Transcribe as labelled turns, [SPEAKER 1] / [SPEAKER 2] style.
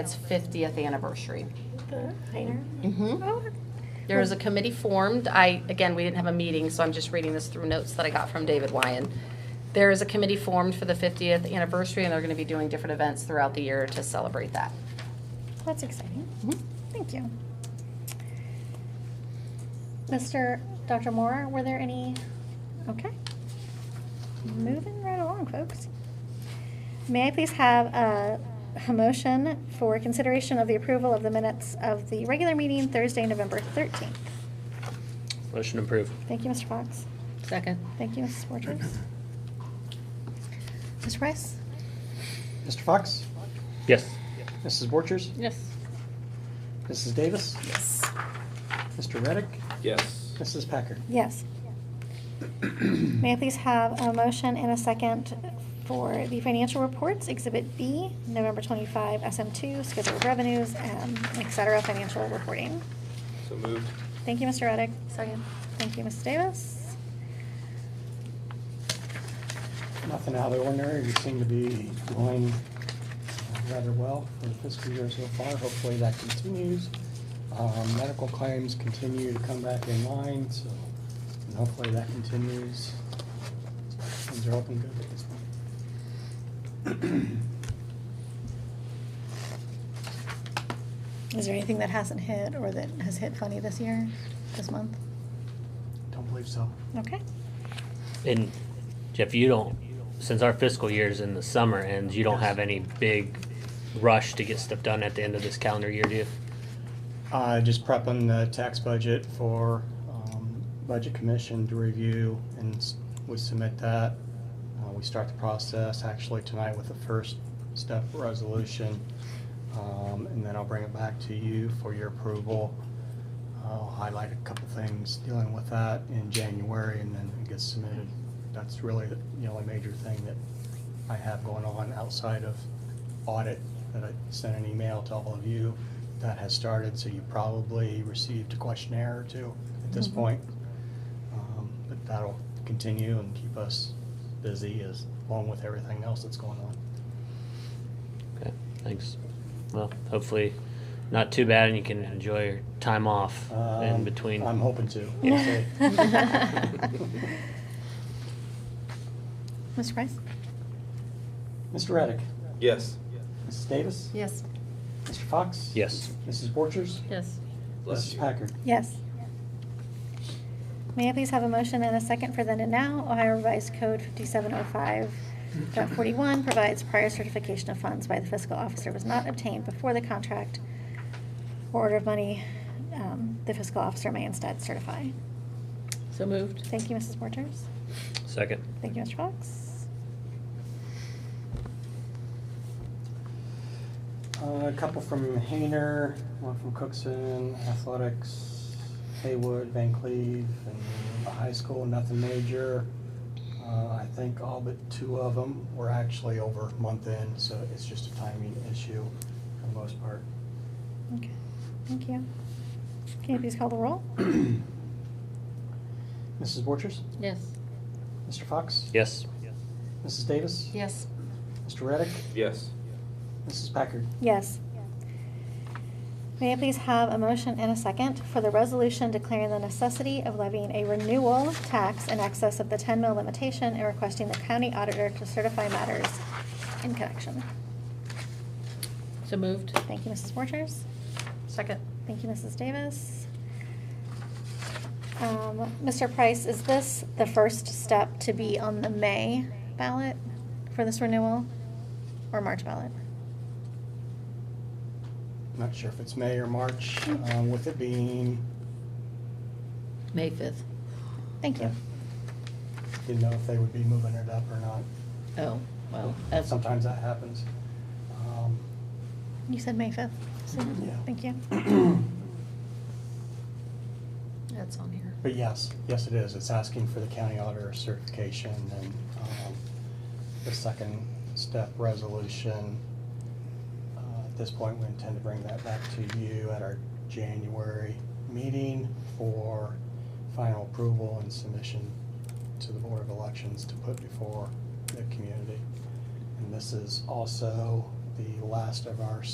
[SPEAKER 1] its 50th anniversary.
[SPEAKER 2] Minor? Mm-hmm. Oh,
[SPEAKER 1] There is a committee formed. I, again, we didn't have a meeting, so I'm just reading this through notes that I got from David Wyan. There is a committee formed for the 50th anniversary, and they're going to be doing different events throughout the year to celebrate that.
[SPEAKER 2] That's exciting.
[SPEAKER 1] Mhm.
[SPEAKER 2] Thank you. Mr. Dr. Moore, were there any? Okay. Moving right along, folks. May I please have a, a motion for consideration of the approval of the minutes of the regular meeting Thursday, November 13th?
[SPEAKER 3] Motion approved.
[SPEAKER 2] Thank you, Mr. Fox.
[SPEAKER 1] Second.
[SPEAKER 2] Thank you, Mrs. Borchers. Ms. Rice?
[SPEAKER 4] Mr. Fox?
[SPEAKER 3] Yes.
[SPEAKER 4] Mrs. Borchers?
[SPEAKER 1] Yes.
[SPEAKER 4] Mrs. Davis?
[SPEAKER 1] Yes.
[SPEAKER 4] Mr. Reddick?
[SPEAKER 5] Yes.
[SPEAKER 4] Mrs. Packard?
[SPEAKER 2] Yes. May I please have a motion and a second for the financial reports, Exhibit B, November 25, SM2, Schedule of Revenues, um, et cetera, financial reporting.
[SPEAKER 5] So moved.
[SPEAKER 2] Thank you, Mr. Reddick.
[SPEAKER 1] Second.
[SPEAKER 2] Thank you, Mrs. Davis.
[SPEAKER 4] Nothing out of the ordinary. We seem to be going rather well for the fiscal year so far. Hopefully that continues. Um, Medical claims continue to come back in line, so and hopefully that continues. Things are looking good at this point.
[SPEAKER 2] Is there anything that hasn't hit or that has hit funny this year, this month?
[SPEAKER 4] Don't believe so.
[SPEAKER 2] Okay.
[SPEAKER 3] And Jeff, you don't, since our fiscal year's in the summer ends, you don't have any big rush to get stuff done at the end of this calendar year, do you?
[SPEAKER 4] Uh, just prepping the tax budget for, um, Budget Commission to review, and s- we submit that. Uh, we start the process actually tonight with the first step resolution. Um, and then I'll bring it back to you for your approval. I'll highlight a couple things dealing with that in January, and then it gets submitted. That's really the the only major thing that I have going on outside of audit that I sent an email to all of you that has started, so you probably received a questionnaire or two at this
[SPEAKER 2] Mhm.
[SPEAKER 4] point. Um, But that'll continue and keep us busy as, along with everything else that's going on.
[SPEAKER 3] Okay, thanks. Well, hopefully not too bad and you can enjoy your time off in
[SPEAKER 4] Um,
[SPEAKER 3] between.
[SPEAKER 4] I'm hoping to. We'll see.
[SPEAKER 2] Mr. Rice?
[SPEAKER 4] Mr. Reddick,
[SPEAKER 5] Yes.
[SPEAKER 4] Mrs. Davis?
[SPEAKER 1] Yes.
[SPEAKER 4] Mr. Fox?
[SPEAKER 3] Yes.
[SPEAKER 4] Mrs. Borchers?
[SPEAKER 1] Yes.
[SPEAKER 5] Bless
[SPEAKER 4] Mrs.
[SPEAKER 5] you.
[SPEAKER 4] Packard?
[SPEAKER 2] Yes. May I please have a motion and a second for the now Ohio Revised Code 5705.41 provides prior certification of funds by the fiscal officer was not obtained before the contract or order of money, um, the fiscal officer may instead certify.
[SPEAKER 1] So moved.
[SPEAKER 2] Thank you, Mrs. Borchers.
[SPEAKER 3] Second.
[SPEAKER 2] Thank you, Mr. Fox.
[SPEAKER 4] Uh, A couple from Hayner, one from Cookson, Athletics, Haywood, Van Cleve, and the high school, nothing major. Uh, I think all but two of them were actually over month end, so it's just a timing issue for the most part.
[SPEAKER 2] Okay, thank you. Can you please call the roll?
[SPEAKER 4] Mrs. Borchers?
[SPEAKER 1] Yes.
[SPEAKER 4] Mr. Fox?
[SPEAKER 3] Yes.
[SPEAKER 4] Mrs. Davis?
[SPEAKER 1] Yes.
[SPEAKER 4] Mr. Reddick?
[SPEAKER 5] Yes.
[SPEAKER 4] Mrs. Packard?
[SPEAKER 2] Yes. May I please have a motion and a second for the resolution declaring the necessity of levying a renewal tax in excess of the 10 mil limitation and requesting the county auditor to certify matters in connection?
[SPEAKER 1] So moved.
[SPEAKER 2] Thank you, Mrs. Borchers.
[SPEAKER 1] Second.
[SPEAKER 2] Thank you, Mrs. Davis. Um, Mr. Price, is this the first step to be on the May ballot for this renewal or March ballot?
[SPEAKER 4] Not sure if it's May or March, um, with it being,
[SPEAKER 1] May 5th.
[SPEAKER 2] Thank you.
[SPEAKER 4] didn't know if they would be moving it up or not.
[SPEAKER 1] Oh,
[SPEAKER 4] Sometimes that happens. Um,
[SPEAKER 2] You said May 5th. so-
[SPEAKER 4] Yeah.
[SPEAKER 2] Thank you.
[SPEAKER 1] That's on here.
[SPEAKER 4] But yes, yes it is. It's asking for the county auditor certification and um, the second step resolution. Uh, At this point, we intend to bring that back to you at our January meeting for final approval and submission to the Board of Elections to put before the community. And this is also the last of our